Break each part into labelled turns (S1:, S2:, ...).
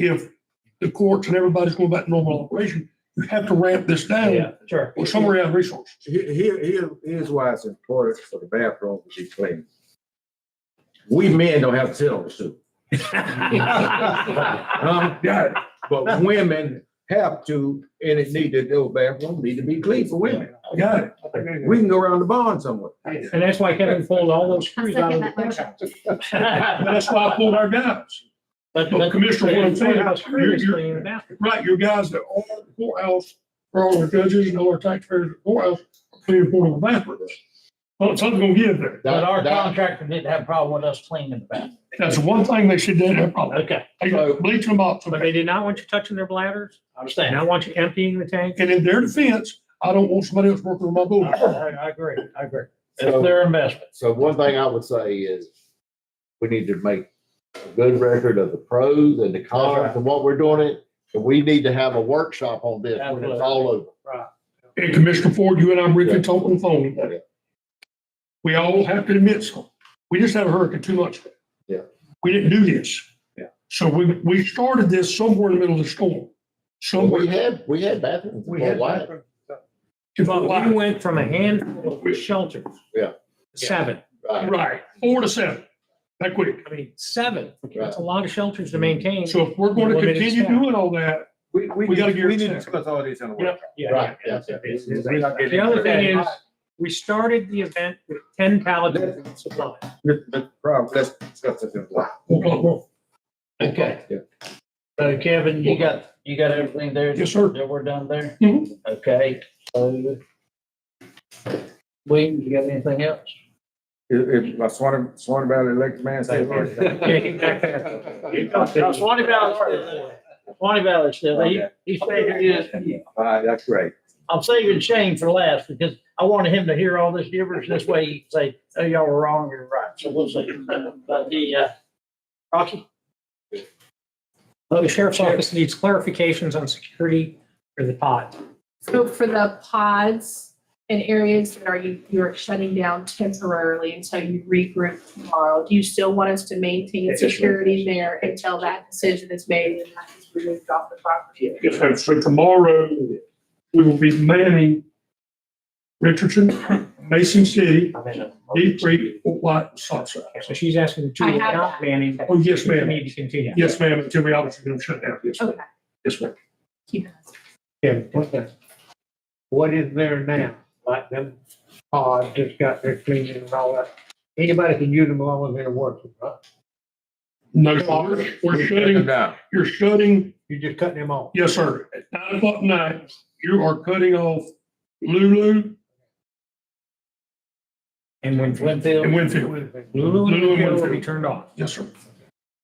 S1: if the courts and everybody's going back to normal operation, you have to ramp this down
S2: Oh, sure.
S1: or somewhere out of resource.
S3: Here, here, here- here's why it's important for the bathroom to be clean. We men don't have to tell them to. do, um,
S1: Yeah,
S3: But women have to, and it need to, those bathrooms need to be clean for women.
S1: I got it.
S3: We can go around the barn somewhere.
S2: And that's why Kevin pulled all those screws out of the
S4: Second that motion.
S2: contract.
S1: And that's why I pulled our guys. But Commissioner, what I'm saying, you're- you're- Right, your guys that are at the courthouse, are all the judges and all our taxpayers at the courthouse, are cleaning portable bathrooms. Well, something's gonna give there.
S2: But our
S5: That- that-
S2: contractor didn't have a problem with us cleaning the bathroom.
S1: That's the one thing they should do, they're probably,
S2: Okay,
S1: they bleach them up.
S6: But they did not want you touching their bladders,
S2: I
S6: and I
S2: understand.
S6: want you emptying the tank.
S1: And in their defense, I don't want somebody else working on my
S2: I,
S1: building.
S2: I- I agree, I agree. It's
S5: So-
S2: their investment.
S5: So one thing I would say is we need to make a good record of the pros and the cons and what we're doing it. And we need to have a workshop on this when it's all over.
S1: And Commissioner Ford, you and I briefly talked on the phone.
S5: Yeah.
S1: We all have to admit something. We just had a hurricane two months ago.
S5: Yeah.
S1: We didn't do this.
S5: Yeah.
S1: So we, we started this somewhere in the middle of the storm.
S5: We
S1: Somewhere,
S5: had, we had bathrooms.
S2: We
S5: for
S2: had
S5: life.
S1: if I'm
S6: We
S1: lying,
S6: went from a handful of shelters.
S5: Yeah.
S6: Seven.
S5: Right.
S1: right, four to seven, that quick.
S6: I mean, seven. That's a lot of shelters to maintain.
S1: So if we're going to
S6: Limited
S1: continue
S6: staff.
S1: doing all that,
S3: We, we,
S1: We gotta
S3: need-
S1: get
S3: we need
S1: it
S3: to
S1: checked.
S3: discuss all this in a
S1: Yeah.
S3: way.
S2: Yeah.
S5: Right, yeah, yeah.
S6: The other thing is, we started the event with ten pallets of supplies.
S3: Problem, let's discuss this in a way.
S1: we'll talk more.
S2: Okay.
S3: Yeah.
S2: So Kevin, you got, you got everything there?
S1: Yes, sir.
S2: That we're done there?
S1: Mhm.
S2: Okay. so- William, you got anything else?
S3: If, if my Swan, Swan Valley elected man says.
S2: No, Swanee Valley's still there. Swanee Valley's still there. He-
S3: Okay.
S2: He figured it.
S3: All right, that's great.
S2: I'm saving Shane for last because I wanted him to hear all this gibberish. This way he can say, oh, y'all were wrong, you're right. So we'll see. But the, uh, Rocky?
S6: The sheriff's office needs clarifications on security for the pod.
S4: So for the pods and areas that are you, you're shutting down temporarily until you regroup tomorrow, do you still want us to maintain security there until that decision is made and that is removed off the property?
S1: Yes, ma'am. So tomorrow, we will be manning Richardson, Mason City, Deep Creek, Fort White, and Southside.
S6: So she's asking the two
S4: I have
S6: without
S4: that.
S6: manning.
S1: Oh, yes,
S6: We
S1: ma'am.
S6: need to continue.
S1: Yes, ma'am. Until we obviously gonna shut down. Yes, ma'am.
S4: Okay.
S1: Yes, ma'am.
S4: keep it.
S6: What is there now? Like them pods just got their cleaning and all that. Anybody can use them along with their work, right?
S1: No, sir. we're shutting,
S3: down.
S1: you're shutting,
S6: You're just cutting them off.
S1: yes, sir. At nine o'clock at night, you are cutting off Lulu
S6: And when
S1: and
S2: Winfield,
S1: Winfield.
S6: Lulu and
S1: Lulu and
S6: Winfield will be
S1: Winfield.
S6: turned off.
S1: Yes, sir.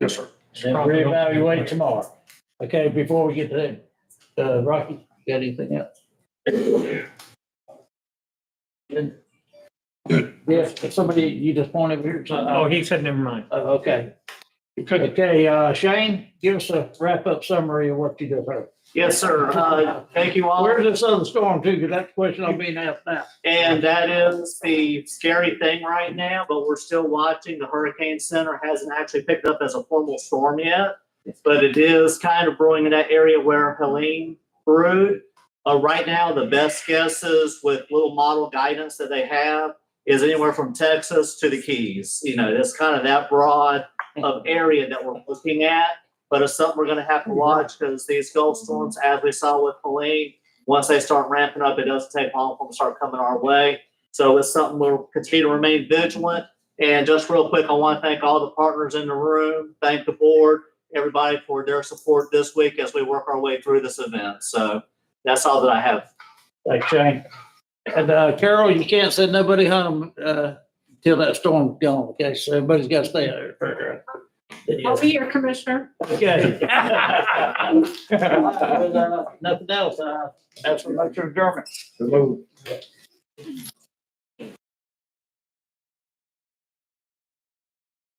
S1: Yes, sir.
S2: then reevaluate tomorrow. Okay, before we get to that, uh, Rocky, you got anything else? Good. Yes, if somebody, you just point over here. so-
S6: Oh, he said, never mind.
S2: Oh, Okay.
S1: Okay.
S2: Okay, uh, Shane, give us a wrap-up summary of what you just heard.
S7: Yes, sir. Uh, Thank you all.
S2: Where's this other storm too? Because that's the question I'm being asked now.
S7: And that is the scary thing right now, but we're still watching. The Hurricane Center hasn't actually picked up as a formal storm yet. But it is kind of brewing in that area where Helene brewed. Uh, right now, the best guesses with little model guidance that they have is anywhere from Texas to the Keys. You know, that's kind of that broad of area that we're looking at. But it's something we're gonna have to watch because these Gulf storms, as we saw with Helene, once they start ramping up, it doesn't take long for them to start coming our way. So it's something we'll continue to remain vigilant. And just real quick, I want to thank all the partners in the room, thank the board, everybody for their support this week as we work our way through this event. So that's all that I have.
S2: Thanks, Shane. And, uh, Carol, you can't send nobody home, uh, till that storm's gone, okay? So everybody's got to stay out there.
S4: I'll be your commissioner.
S2: Okay. Nothing else, uh, that's for Mr. German.
S3: Hello.